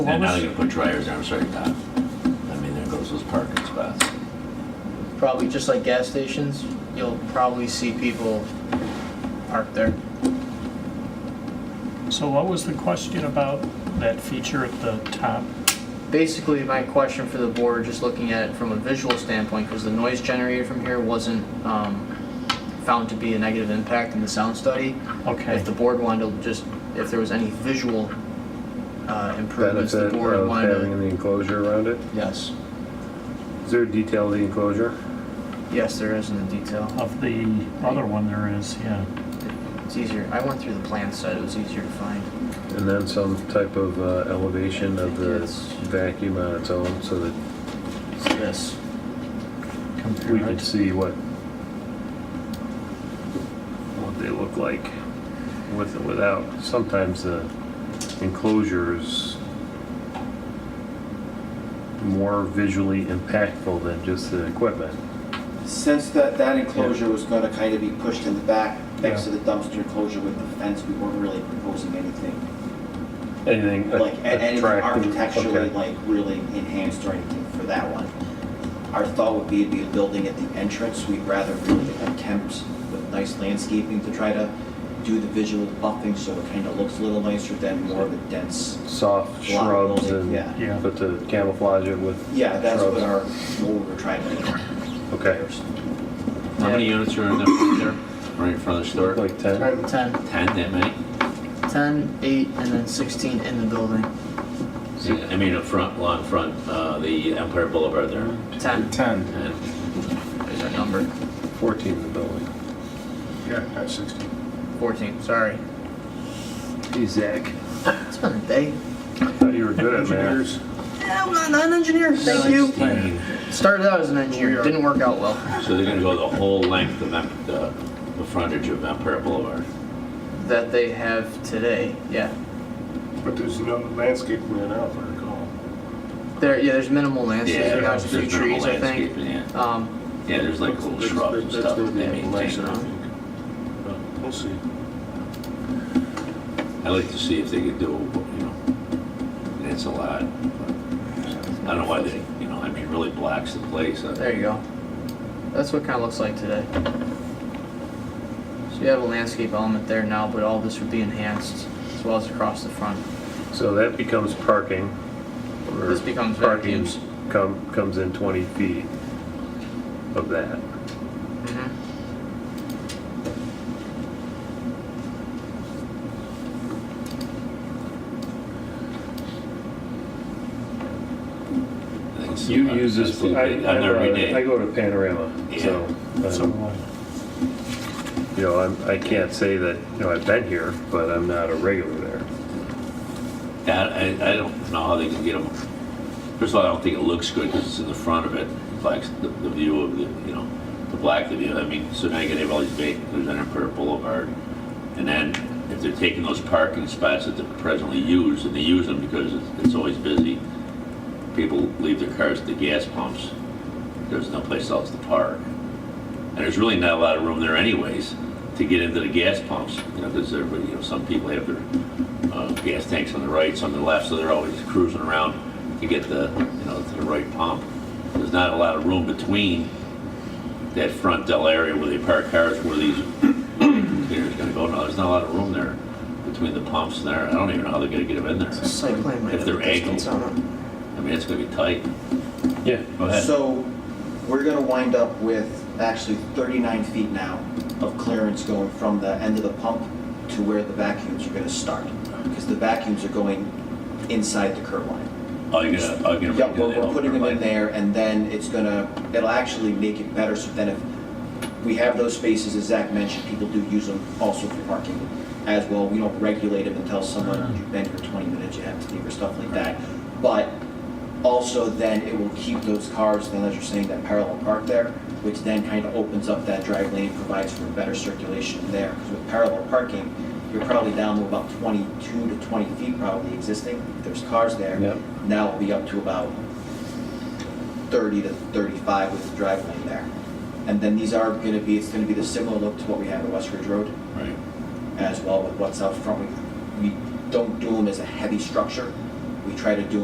And now they're gonna put dryers down certain time. uh, I mean, there goes those parking spots. probably just like gas stations, you'll probably see people parked there. So what was the question about that feature at the top? Basically, my question for the board, just looking at it from a visual standpoint, because the noise generated from here wasn't um, found to be a negative impact in the sound study. Okay, If the board wanted to just, if there was any visual uh, improvements, the benefit board of wanted having to. the enclosure around it? Yes, Is there a detail of the enclosure? yes, there is in the Oh. detail. of the other one there is, yeah. It's easier, I went through the plan set, it was easier to find. And then some type of uh, elevation of the vacuum on its own so that It's this. we Compare can it. see what, what they look like with and without. Sometimes the enclosures more visually impactful than just the equipment. Since that, that enclosure was gonna kind of be pushed in the back, next to Yeah. the dumpster enclosure with the fence, we weren't really proposing anything, Anything like, a- anything attractive? architecturally, okay. like, really enhanced or anything for that one. Our thought would be to be a building at the entrance, we'd rather really attempt with nice landscaping to try to do the visual buffing, so it kind of looks a little nicer than more of a dense. Soft shrubs and, Yeah. Yeah. but to camouflage it with Yeah, that's what shrubs. our, what we were trying to do. Okay, How many units are in the, there, right in front of the store? like 10? Alright, 10, Ten, that many? 10, 8, and then 16 in the building. Yeah, I mean, up front, along front, uh, the Empire Boulevard there. 10 10. And is our number. 14 in the building. Yeah, that's 16. 14, sorry. Hey, Zach. It's been a day. I thought you were good at math. Engineers, I'm not, not an engineer, thank you. 16. Started out as an engineer, didn't work out well. So they're gonna go the whole length of Em- the, the frontage of Empire Boulevard. That they have today, yeah. but there's no landscape plan out, if I recall. There, yeah, there's minimal Yeah, landscaping, there's a few there's minimal trees, I think. landscaping, Yeah, Um, Yeah, there's like little That's- shrubs and that's stuff gonna that be they nicer, maintain. I around. think. But We'll see. I'd like to see if they could do, you know, it's a lot. but I don't know why they, you know, I mean, really blacks the place. I- there you go. That's what kind of looks like today. So you have a landscape element there now, but all this would be enhanced as well as across the front. So that becomes parking. or This becomes parking vacuums. Come, comes in 20 feet of that. I think it's- You use that's this, what I, uh, they- on every day. I I go to Panorama, so, So um, what? you know, I'm, I can't say that, you know, I've been here, but I'm not a regular there. Yeah, I, I don't know how they can get them. First of all, I don't think it looks good because it's in the front of it, blacks the, the view of the, you know, the black the view. I mean, so now you gotta have all these vehicles on Empire Boulevard. And then if they're taking those parking spots that they're presently used, and they use them because it's, it's always busy, people leave their cars at the gas pumps. There's no place else to park. And there's really not a lot of room there anyways to get into the gas pumps, you know, because everybody, you know, some people have their uh, gas tanks on the right, some on the left, so they're always cruising around to get the, you know, to the right pump. There's not a lot of room between that front Dell area where they park cars, where these containers gonna go. No, there's not a lot of room there between the pumps and there. I don't even know how they're gonna get them in there. Site plan might If have they're distance angled. on it. I mean, it's gonna be tight. Yeah. Go ahead. So we're gonna wind up with actually 39 feet now of clearance going from the end of the pump to where the vacuums are gonna start, because the vacuums are going inside the curb line. Oh, you're gonna, oh, you're gonna. Yeah, do we're, that we're putting them in overlay. there, and then it's gonna, it'll actually make it better, so then if we have those spaces, as Zach mentioned, people do use them also for parking as well, we don't regulate them and tell someone, Uh-huh. you've been here twenty minutes, you have to leave, or stuff like that. But also then it will keep those cars, then as you're saying, that parallel park there, which then kind of opens up that drive lane, provides for better circulation there, because with parallel parking, you're probably down to about twenty-two to twenty feet probably existing, there's cars there. Yep. Now it'll be up to about 30 to 35 with the drive lane there. And then these are going to be, it's going to be the similar look to what we have at West Ridge Road Right. as well with what's out front. We, we don't do them as a heavy structure. we try to do